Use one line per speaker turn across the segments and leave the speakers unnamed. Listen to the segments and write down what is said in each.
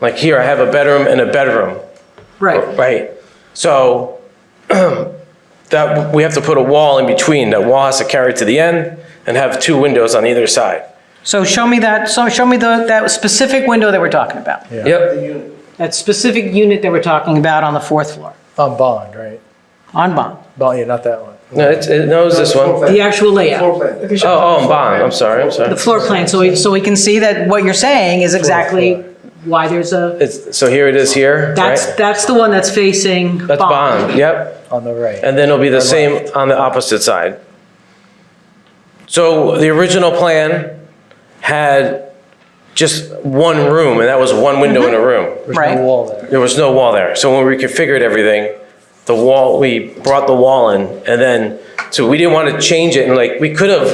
Like here, I have a bedroom and a bedroom,
Right,
right? So that, we have to put a wall in between. That wall has to carry to the end and have two windows on either side.
so show me that, so show me the, that specific window that we're talking about.
Yep,
That specific unit that we're talking about on the fourth floor,
On Bond, right?
on Bond,
Bond, yeah, not that one.
no, it's, it knows this one. Oh,
the actual layout,
oh, and bond, I'm sorry, I'm sorry.
the floor plan, so we, so we can see that what you're saying is exactly why there's a,
It's, so here it is here, right?
that's, that's the one that's facing
That's bond, yep.
On the right.
And then it'll be the same on the opposite side. So the original plan had just one room, and that was one window
Mm-hmm.
in a room.
There's
Right.
no wall there.
There was no wall there. So when we configured everything, the wall, we brought the wall in, and then, so we didn't want to change it, and like, we could have,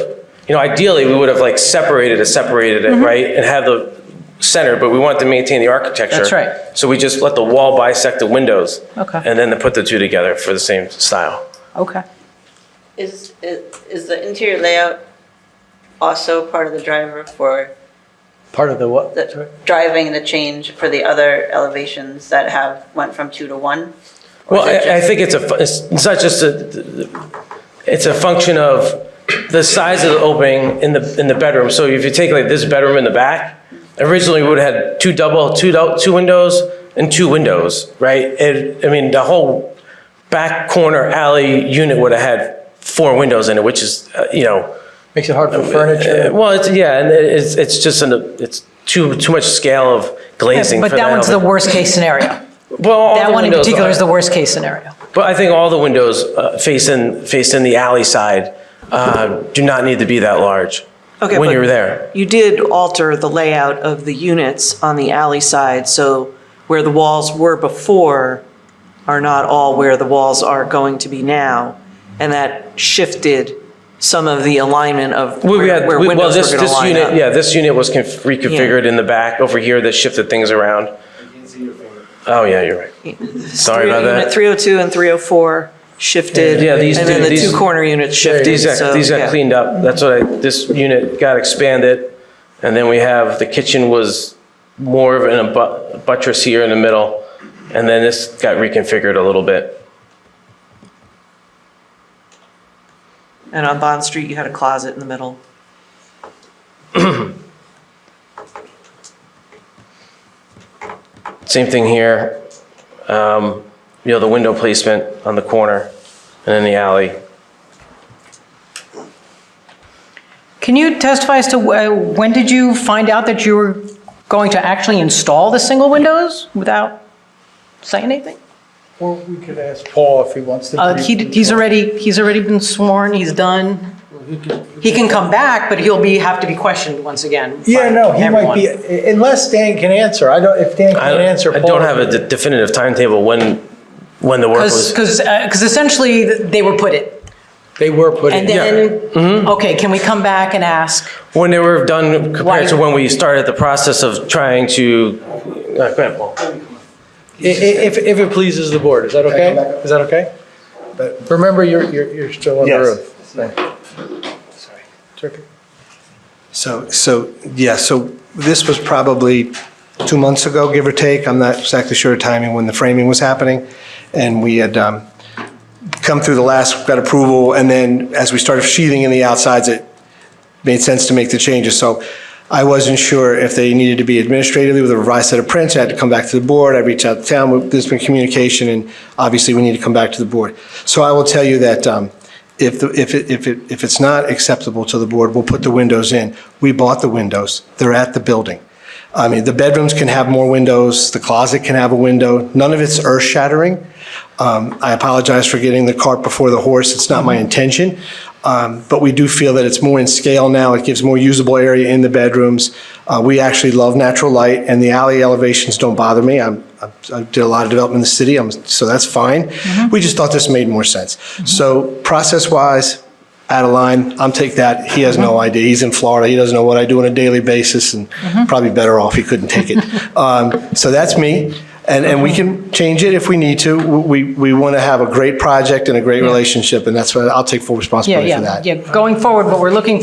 you know, ideally, we would have like separated it, separated
Mm-hmm.
it, right? And have the center, but we wanted to maintain the architecture.
That's right.
So we just let the wall bisect the windows.
Okay.
And then to put the two together for the same style.
Okay.
Is, is is the interior layout also part of the driver for
Part of the what? Sorry?
the, driving the change for the other elevations that have, went from two to one? Or is
Well,
it
I, I
just-
think it's a, fu- it's it's not just a, it's a function of the size of the opening in the, in the bedroom. So if you take like this bedroom in the back, originally we would have had two double, two, dou- two windows and two windows, right? It, I mean, the whole back corner alley unit would have had four windows in it, which is, uh, you know,
Makes it hard for
uh,
furniture.
well, it's, yeah, and it- it's, it's just an, it's too, too much scale of glazing for
But
the
that one's the
element.
worst case scenario.
Well, all
That
the
one in
windows
particular
are.
is the worst case scenario.
But I think all the windows uh, face in, face in the alley side uh, do not need to be that large
Okay,
when
but-
you're there.
You did alter the layout of the units on the alley side, so where the walls were before are not all where the walls are going to be now. And that shifted some of the alignment of
We- we
where
had-
where
we- well,
windows
this-
were going to
this
line
unit-
up.
Yeah, this unit was conf- reconfigured in the back over here that shifted things around. Oh, yeah, you're right. Sorry about
Unit
that.
302 and 304 shifted.
Yeah, these
And
do-
then the
these-
two corner units shifted.
These
so,
got, these got
yeah.
cleaned up. That's what I, this unit got expanded. And then we have, the kitchen was more of an abu- buttress here in the middle. And then this got reconfigured a little bit.
And on Bond Street, you had a closet in the middle.
Same thing here. Um, You know, the window placement on the corner and in the alley.
Can you testify as to uh, when did you find out that you were going to actually install the single windows without saying anything?
Or we could ask Paul if he wants to.
Uh,
be-
he, he's already, he's already been sworn, he's done. He can come back, but he'll be, have to be questioned once again. by
Yeah, no, he might
everyone.
be, unless Dan can answer. I don't, if Dan
I
can answer.
I
Paul-
don't have a de- definitive timetable when, when the work
Because,
was.
because, because uh, essentially they were put it.
They were put in.
And then, okay, can we come back and ask?
When they were done compared to
Why-
when we started the process of trying to, uh, go ahead, Paul.
I- i- If, if it pleases the board, is that okay? Is that okay? But remember, you're, you're, you're still on the
Yes.
roof. Thank you. It's okay.
So, so, yeah, so this was probably two months ago, give or take. I'm not exactly sure of timing when the framing was happening. And we had um, come through the last, got approval, and then as we started sheathing in the outsides, it made sense to make the changes. So I wasn't sure if they needed to be administratively with a revised set of prints. I had to come back to the board. I reached out to town. There's been communication, and obviously, we need to come back to the board. So I will tell you that um, if, the- if, it- if, it- if it's not acceptable to the board, we'll put the windows in. We bought the windows. They're at the building. I mean, the bedrooms can have more windows, the closet can have a window. None of it's earth-shattering. Um, I apologize for getting the cart before the horse. It's not my intention. Um, But we do feel that it's more in scale now. It gives more usable area in the bedrooms. Uh, We actually love natural light, and the alley elevations don't bother me. I'm- I'm- I did a lot of development in the city, I'm- so that's fine. We just thought this made more sense. So process-wise, out of line, I'm take that. He has no
Mm-hmm.
idea. He's in Florida. He doesn't know what I do on a daily basis and
Mm-hmm.
probably better off he couldn't take it. Um, so that's me. And, and we can change it if we need to. We, we want to have a great project and a great relationship and that's what I'll take full
Yeah,
responsibility for
yeah,
that.
yeah. Going forward, what we're looking